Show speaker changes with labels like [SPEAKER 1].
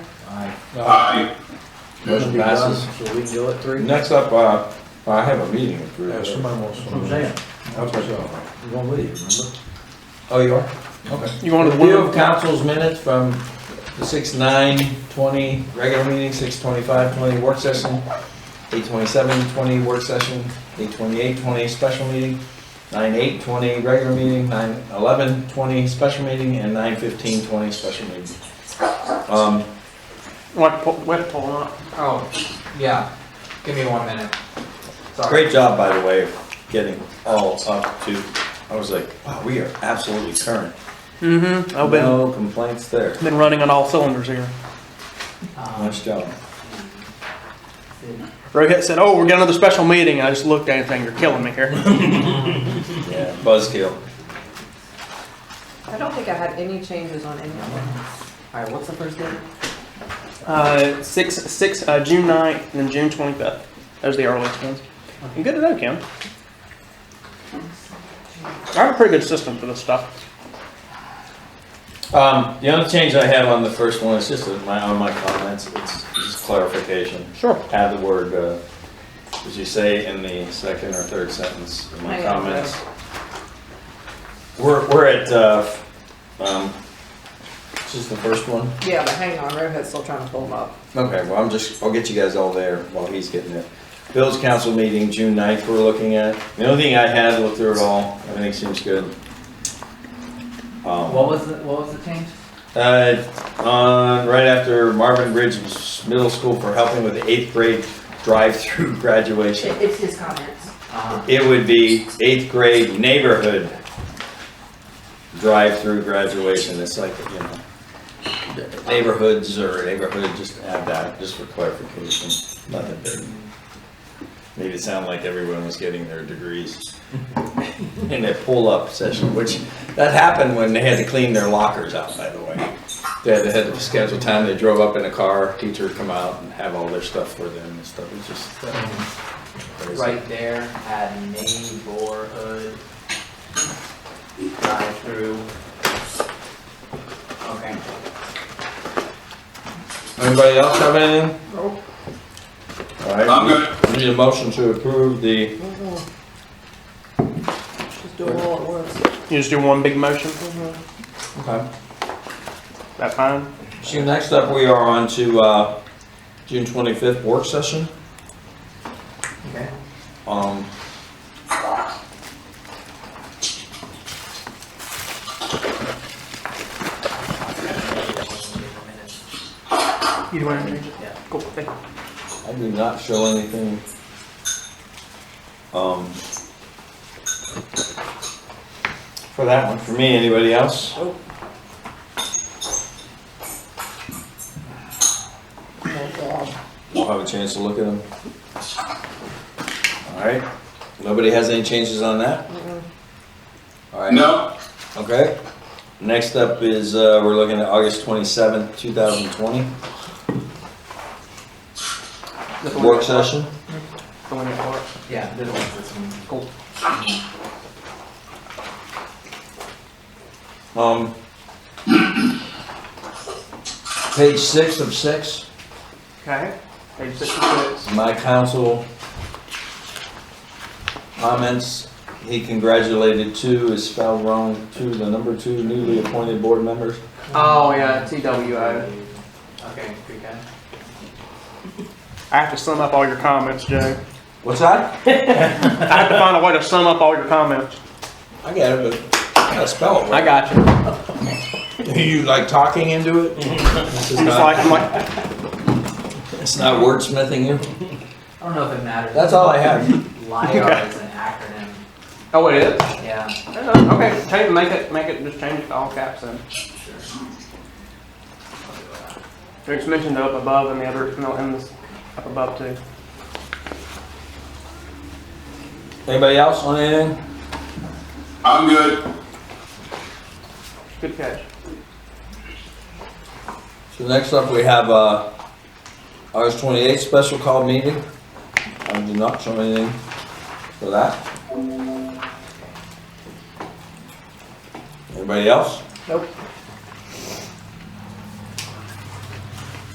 [SPEAKER 1] Aye.
[SPEAKER 2] Motion passes.
[SPEAKER 3] So we can go at three?
[SPEAKER 2] Next up, uh, I have a meeting at three.
[SPEAKER 4] Yeah, somebody wants to.
[SPEAKER 3] Roseanne,
[SPEAKER 2] Okay.
[SPEAKER 3] you're gonna leave, remember?
[SPEAKER 2] Oh, you are?
[SPEAKER 4] Okay.
[SPEAKER 5] You wanted
[SPEAKER 2] Review
[SPEAKER 5] one,
[SPEAKER 2] of council's minutes from the six nine twenty regular meeting, six twenty-five twenty work session, eight twenty-seven twenty work session, eight twenty-eight twenty special meeting, nine eight twenty regular meeting, nine eleven twenty special meeting, and nine fifteen twenty special meeting. Um,
[SPEAKER 5] what, po- what, poll, uh,
[SPEAKER 6] Oh, yeah. Give me one minute. Sorry.
[SPEAKER 2] Great job, by the way, of getting all up to, I was like, wow, we are absolutely current.
[SPEAKER 5] mm-hmm, I've been,
[SPEAKER 2] No complaints there.
[SPEAKER 5] been running on all cylinders here.
[SPEAKER 6] Um,
[SPEAKER 2] Nice job.
[SPEAKER 5] Rohit said, oh, we're getting another special meeting, I just looked at it and think, you're killing me here.
[SPEAKER 2] Yeah, buzzkill.
[SPEAKER 7] I don't think I had any changes on any of them.
[SPEAKER 6] All right, what's the first date?
[SPEAKER 5] Uh, six, six, uh, June ninth, and then June twenty-fifth, those are the earliest ones. And good to know, Kim. I have a pretty good system for this stuff.
[SPEAKER 2] Um, the only change I have on the first one is just in my, on my comments, it's just clarification.
[SPEAKER 5] Sure.
[SPEAKER 2] Add the word, uh, as you say in the second or third sentence in my
[SPEAKER 7] I-
[SPEAKER 2] comments. We're, we're at, uh, um, this is the first one?
[SPEAKER 7] Yeah, but hang on, Rohit's still trying to pull them up.
[SPEAKER 2] Okay, well, I'm just, I'll get you guys all there while he's getting there. Bill's council meeting, June 9th, we're looking at. The only thing I had, looked through it all, everything seems good. Um,
[SPEAKER 6] What was the, what was the change?
[SPEAKER 2] Uh, on, right after Marvin Bridge Middle School for helping with the eighth grade drive-through graduation.
[SPEAKER 7] It's his comments.
[SPEAKER 6] Uh,
[SPEAKER 2] It would be eighth grade neighborhood drive-through graduation. It's like, you know, neighborhoods or neighborhood, just add that, just for clarification, nothing big. Made it sound like everyone was getting their degrees in a pull-up session, which, that happened when they had to clean their lockers out, by the way. They had, they had to schedule time, they drove up in a car, teacher would come out and have all their stuff for them and stuff. It's just crazy.
[SPEAKER 6] right there at neighborhood drive-through. Okay.
[SPEAKER 2] Anybody else have anything?
[SPEAKER 7] Nope.
[SPEAKER 2] All
[SPEAKER 1] I'm
[SPEAKER 2] right,
[SPEAKER 1] gonna,
[SPEAKER 2] we need a motion to approve the,
[SPEAKER 7] Just do it all at once.
[SPEAKER 5] You just do one big motion, Mm-hmm.
[SPEAKER 2] okay.
[SPEAKER 5] that fine?
[SPEAKER 2] So next up, we are on to, uh, June twenty-fifth work session.
[SPEAKER 6] Okay.
[SPEAKER 2] Um,
[SPEAKER 5] You want to change it?
[SPEAKER 6] Yeah.
[SPEAKER 5] Cool, thank you.
[SPEAKER 2] I do not show anything. Um, for that one, for me, anybody else?
[SPEAKER 7] Oh, God.
[SPEAKER 2] We'll have a chance to look at them. All right, nobody has any changes on that? All right.
[SPEAKER 1] no,
[SPEAKER 2] Okay. Next up is, uh, we're looking at August 27th, 2020,
[SPEAKER 5] The one
[SPEAKER 2] work
[SPEAKER 5] you got,
[SPEAKER 2] session.
[SPEAKER 5] The one you got.
[SPEAKER 6] Yeah, this one's this one.
[SPEAKER 5] Cool.
[SPEAKER 2] Um, Page six of six,
[SPEAKER 5] Okay, page sixty-six.
[SPEAKER 2] my counsel comments. He congratulated two, is spelled wrong, two, the number two newly appointed board members.
[SPEAKER 5] Oh, yeah, TWO.
[SPEAKER 6] Okay, pretty good.
[SPEAKER 5] I have to sum up all your comments, Joe.
[SPEAKER 2] What's that?
[SPEAKER 5] I have to find a way to sum up all your comments.
[SPEAKER 2] I got it, but I gotta spell it.
[SPEAKER 5] I got you.
[SPEAKER 2] right. You like talking into it? This is
[SPEAKER 5] It's
[SPEAKER 2] not,
[SPEAKER 5] like, I'm like,
[SPEAKER 2] it's not wordsmithing you?
[SPEAKER 6] I don't know if it matters.
[SPEAKER 2] That's all I have.
[SPEAKER 6] LiDAR is an acronym.
[SPEAKER 5] oh, it is?
[SPEAKER 6] Yeah.
[SPEAKER 5] Okay, change, make it, make it, just change it to all caps then. It's mentioned up above and the other, no, in this, up above too.
[SPEAKER 2] Anybody else on anything?
[SPEAKER 1] I'm good.
[SPEAKER 5] Good catch.
[SPEAKER 2] So next up, we have, uh, August twenty-eighth, special call meeting. I did not show anything for that. Anybody else?
[SPEAKER 7] Nope.